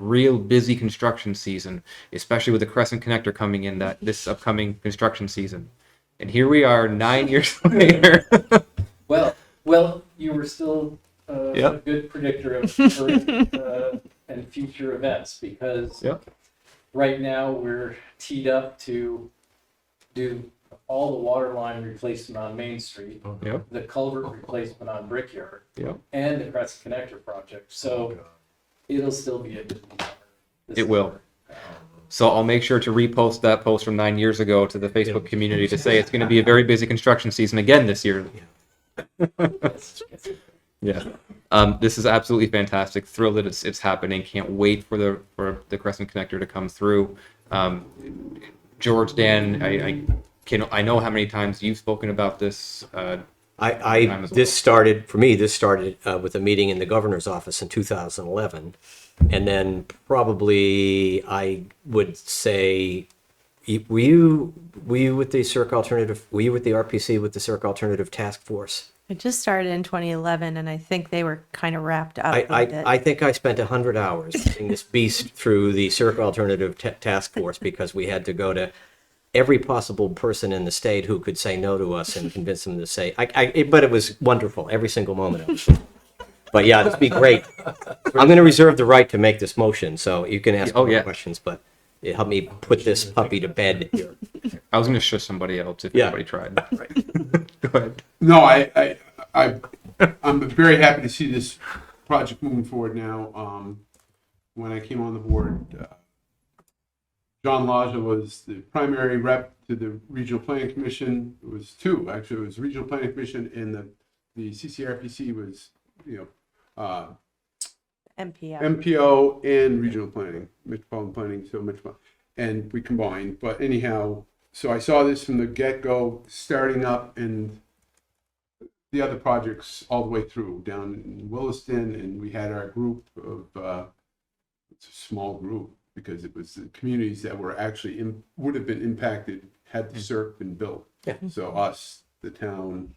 real busy construction season, especially with the Crescent Connector coming in that this upcoming construction season. And here we are, nine years later. Well, well, you were still uh, a Yep. good predictor of current uh, and future events because Yep. right now we're teed up to do all the water line replacement on Main Street, yep, the culvert replacement on Brickyard, yep. Oh, and the Crescent Connector project. So it'll still be a busy summer. this It will. summer. So I'll make sure to repost that post from nine years ago to the Facebook community to say it's going to be a very busy construction season again this year. Yes, yes. Yeah. Um, this is absolutely fantastic. Thrilled that it's, it's happening. Can't wait for the for the Crescent Connector to come through. Um, George, Dan, I, I can I know how many times you've spoken about this. Uh, I, Time I as well. this started for me. This started uh, with a meeting in the governor's office in 2011, and then probably I would say, y- were you were you with the Circ alternative? Were you with the RPC with the Circ alternative task force? It just started in 2011, and I think they were kind of wrapped up I, with it. I, I think I spent 100 hours seeing this beast through the Circ Alternative t- Task Force because we had to go to every possible person in the state who could say no to us and convince them to say, I, I, it, but it was wonderful, every single moment of it. But yeah, this would be great. I'm going to reserve the right to make this motion, so you can ask Oh, more yeah. questions, but it helped me put this puppy to bed here. I was going to shush somebody else if Yeah. anybody tried. Go ahead. No, I, I, I, I'm very happy to see this project moving forward now. Um, when I came on the board, uh, John Laja was the primary rep to the Regional Planning Commission. It was two, actually, it was Regional Planning Commission and the, the CCRPC was, you know, uh, MPO. MPO and regional planning, metropolitan planning, so metropolitan, and we combined, but anyhow, so I saw this from the get-go, starting up and the other projects all the way through, down in Williston, and we had our group of, uh, it's a small group, because it was the communities that were actually, im- would have been impacted had the CERC been built. Mm. Yeah. So us, the town,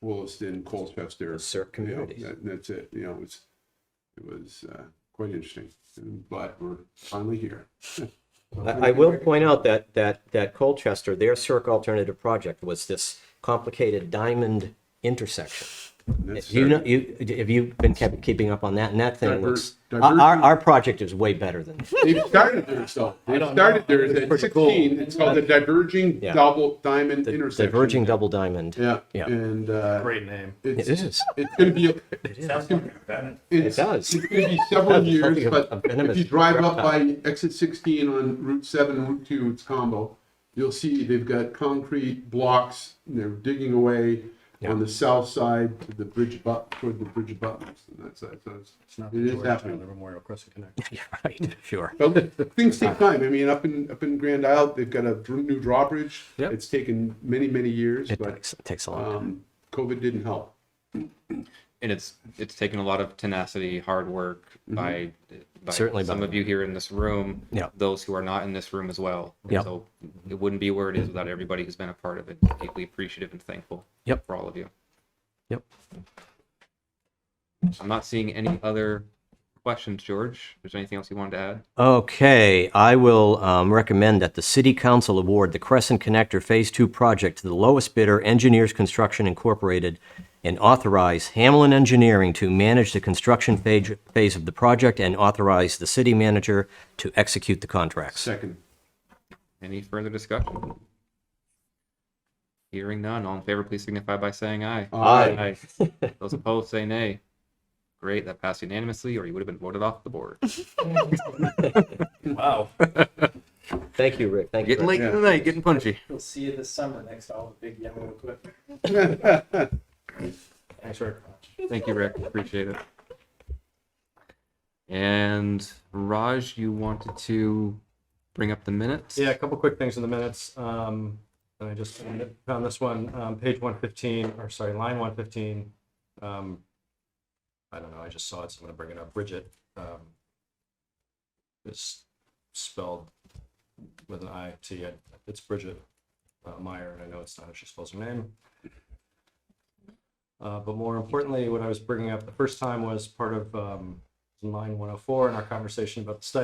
Williston, Colchester. Circ You know, communities. that- That's it, you know, it's, it was uh, quite interesting, and but we're finally here. I I will point out that, that, that Colchester, their Circ Alternative Project was this complicated diamond intersection. That's Do you know, you, have you been kept, keeping up on that? And that thing Diver- looks, diver- our, our- our project is way better than, that. They've started there, so, they've started there at pretty cool. sixteen, it's called the diverging Yeah. double diamond the intersection. diverging double diamond. Yeah, Yeah. and, uh. Great name. It's, It is. it's gonna be, It it's, does. it's gonna be several Something years, of- but of venomous if you drive up by exit sixteen on Route seven, and Route two, it's combo. You'll see they've got concrete blocks, and they're digging away on the south side to the bridge abut, toward the bridge abutments, and that's, that's, It's not that's- the it is Georgetown, happening. the Memorial Crescent Connect. Yeah, Right, sure. But things take time. I mean, up in, up in Grand Isle, they've got a dr- new drawbridge. Yep. It's taken many, many years, It but, takes, it takes a long time. um, COVID didn't help. And it's it's taken a lot of tenacity, hard work by, by Mm-hmm. Certainly by some of the- you here in this room, Yeah. those who are not in this room as well. And Yeah. So it wouldn't be where it is without everybody who's been a part of it. Deeply appreciative and thankful Yep. for all of you. Yep. I'm not seeing any other questions, George. Is there anything else you wanted to add? Okay, I will um, recommend that the City Council award the Crescent Connector Phase Two project to the lowest bidder, Engineers Construction Incorporated, and authorize Hamlin Engineering to manage the construction phase, phase of the project and authorize the city manager to execute the contracts. Second. Any further discussion? Hearing none, all in favor, please signify by saying aye. Aye. Aye. Those opposed, say nay. Great, that passed unanimously, or you would have been voted off the board. Wow. Thank you, Rick. Thank you. Getting Rick. late in the night, getting punchy. You'll see you this summer next to all the big yellow equipment. Thanks very much. Thank you, Rick. Appreciate it. And Raj, you wanted to bring up the minutes? Yeah, a couple quick things in the minutes. Um, and I just found- found this one, um, page one fifteen, or sorry, line one fifteen. Um, I don't know, I just saw it, so I'm gonna bring it up. Bridget, um, is spelled with an I T. It's Bridget uh, Meyer, and I know it's not how she spells her name. Uh, but more importantly, what I was bringing up the first time was part of, um, line one oh four in our conversation about the stipend